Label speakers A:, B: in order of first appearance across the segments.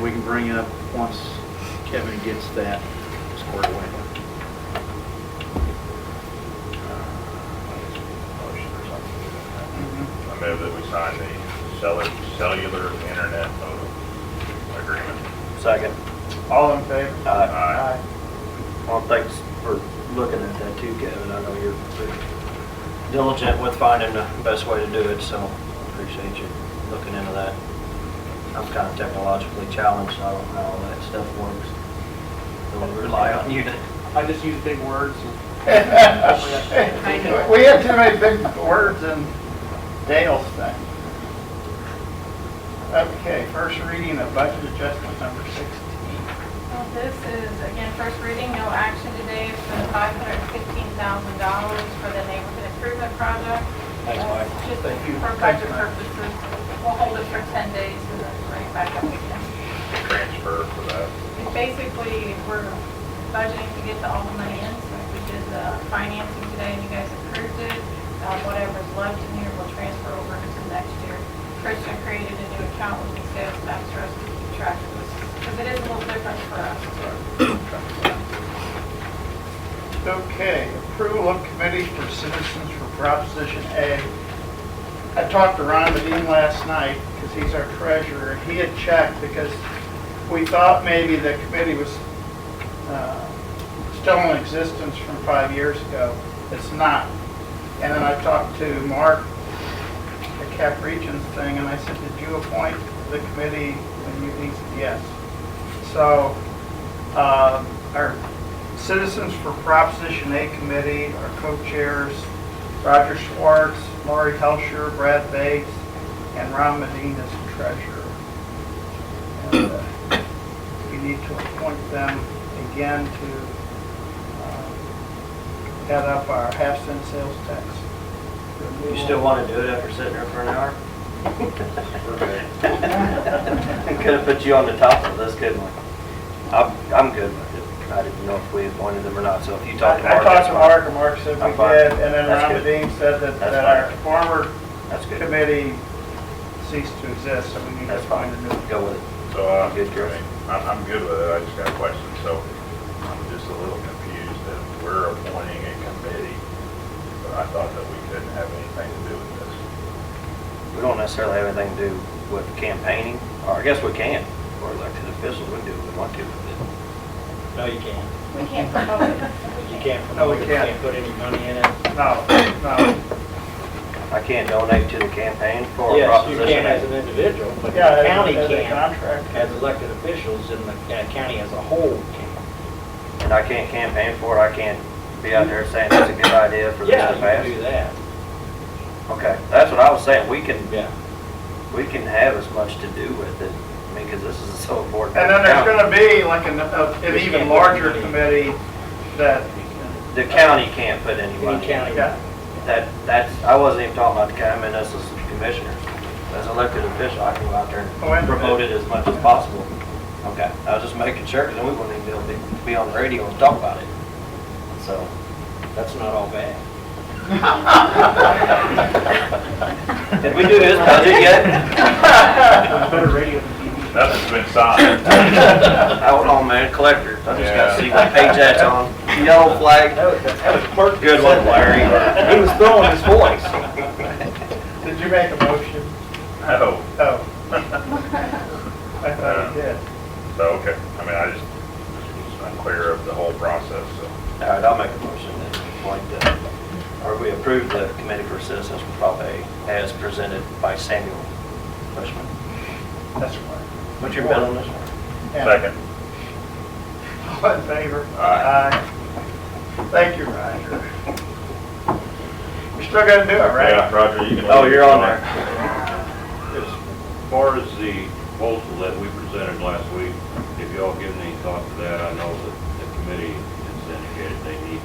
A: we can bring it up once Kevin gets that squared away.
B: I move that we sign the cellular, cellular internet modem agreement.
C: Second.
D: All in favor?
C: Uh,
B: Aye.
C: well, thanks for looking at that too, Kevin. I know you're diligent with finding the best way to do it, so appreciate you looking into that. I'm kind of technologically challenged, so I don't know how all that stuff works. So we rely on you to.
D: I just use big words.
E: I know.
D: We have too many big words in Dale's thing. Okay, first reading of budget adjustment number 16.
E: Well, This is, again, first reading, no action today, It's for the five hundred and fifteen thousand dollars for the neighborhood improvement project.
C: Thanks, Mike.
E: Uh, Just
D: Thank you.
E: for
D: Thank
E: budget
D: you, Mike.
E: purposes, we'll hold it for ten days and then bring it back up again.
B: Transfer for that.
E: And Basically, we're budgeting to get the all the money in, so we did the financing today and you guys approved it. Uh, Whatever's left in here, we'll transfer over into next year. Christian created a new account with the sales tax for us to keep track of this, because it is a little different for us.
D: Okay, approval of committee for citizens for Proposition A. I talked to Ron Medine last night, because he's our treasurer. He had checked, because we thought maybe the committee was uh, still in existence from five years ago. It's not. And then I talked to Mark, the Cap Regions thing, and I said, did you appoint the committee? And he said, yes. So, uh, our Citizens for Proposition A Committee, our co-chairs, Roger Schwartz, Laurie Helsher, Brad Bates, and Ron Medina as the treasurer. And, uh, We need to appoint them again to uh, head up our half-cent sales tax.
C: You still want to do it after sitting there for an hour? Could have put you on the top of this, couldn't we? I'm, I'm good with it. I didn't know if we appointed them or not, so if you talk to
D: I
C: Mark,
D: talked
C: that's
D: to
C: fine.
D: Mark, and Mark said we
C: I'm fine.
D: did, and then
C: That's
D: Ron
C: good.
D: Medina said that
C: That's
D: that our former
C: That's good.
D: committee ceased to exist, so we need to
C: That's fine.
D: find a new one.
C: Go with it.
B: So, uh,
C: Good, Chris.
B: I'm, I'm good with it, I just got a question, so I'm just a little confused that we're appointing a committee, but I thought that we couldn't have anything to do with this.
C: We don't necessarily have anything to do with campaigning, or I guess we can. We're elected officials, we can do what we want to with it.
F: No, you can't.
E: We can't promote it.
F: You can't
D: No, we
F: promote it, you
D: can't.
F: can't put any money in it.
D: No, no.
C: I can't donate to the campaign for a
F: Yes, you can
C: proposition.
F: as
C: A.
F: an individual, but the
D: Yeah, as-
F: county
D: as a
F: can,
D: contract.
F: as elected officials, and the uh, county as a whole can.
C: And I can't campaign for it, I can't be out there saying that's a good idea for this
F: Yeah,
C: to
F: you can do
C: pass.
F: that,
C: Okay, that's what I was saying, we can,
F: yeah.
C: we can have as much to do with it, I mean, because this is so important.
D: And then there's going to be like an, a- an even larger committee that,
C: The county can't put any money
F: Any
C: in.
F: county.
D: yeah,
C: That, that's, I wasn't even talking about the county, I meant us as commissioners. As elected official, I can go out there
D: Oh, I
C: and
D: understand.
C: promote it as much as possible. Okay, I was just making sure, because then we wouldn't even be able to be on the radio and talk about it. So,
F: That's not all bad.
C: did we do his budget yet?
D: better radio than TV.
B: Nothing's been signed.
C: Hold on, man, collector, I just gotta
B: Yeah.
C: see what page that's on. Yellow flag,
F: That was clerk.
C: good one, Larry. He was throwing his voice.
D: Did you make a motion?
B: No,
D: Oh. I thought you did.
B: so, okay, I mean, I just, just was unclear of the whole process, so.
C: All right, I'll make a motion that, like, the- or we approve the Committee for Citizens for Prop A as presented by Samuel Freshman.
D: That's right.
C: What's your bet on this one?
D: And
B: Second,
D: All in favor?
B: Aye.
D: Aye. Thank you, Roger. We're still going to do it,
B: yeah,
D: right?
B: Roger, you can.
C: Oh, you're on there.
G: As far as the proposal that we presented last week, if y'all given any thought to that, I know that the committee has indicated they need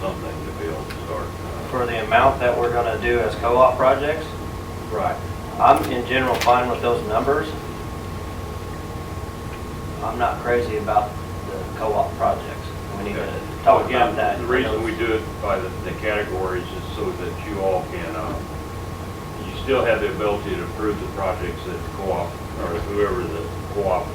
G: something to be able to start. uh,
C: For the amount that we're gonna do as co-op projects,
G: Right.
C: I'm in general fine with those numbers. I'm not crazy about the co-op projects. We need to talk about that.
G: The reason we do it by the, the categories is so that you all can, uh, you still have the ability to approve the projects that the co-op, or whoever the co-op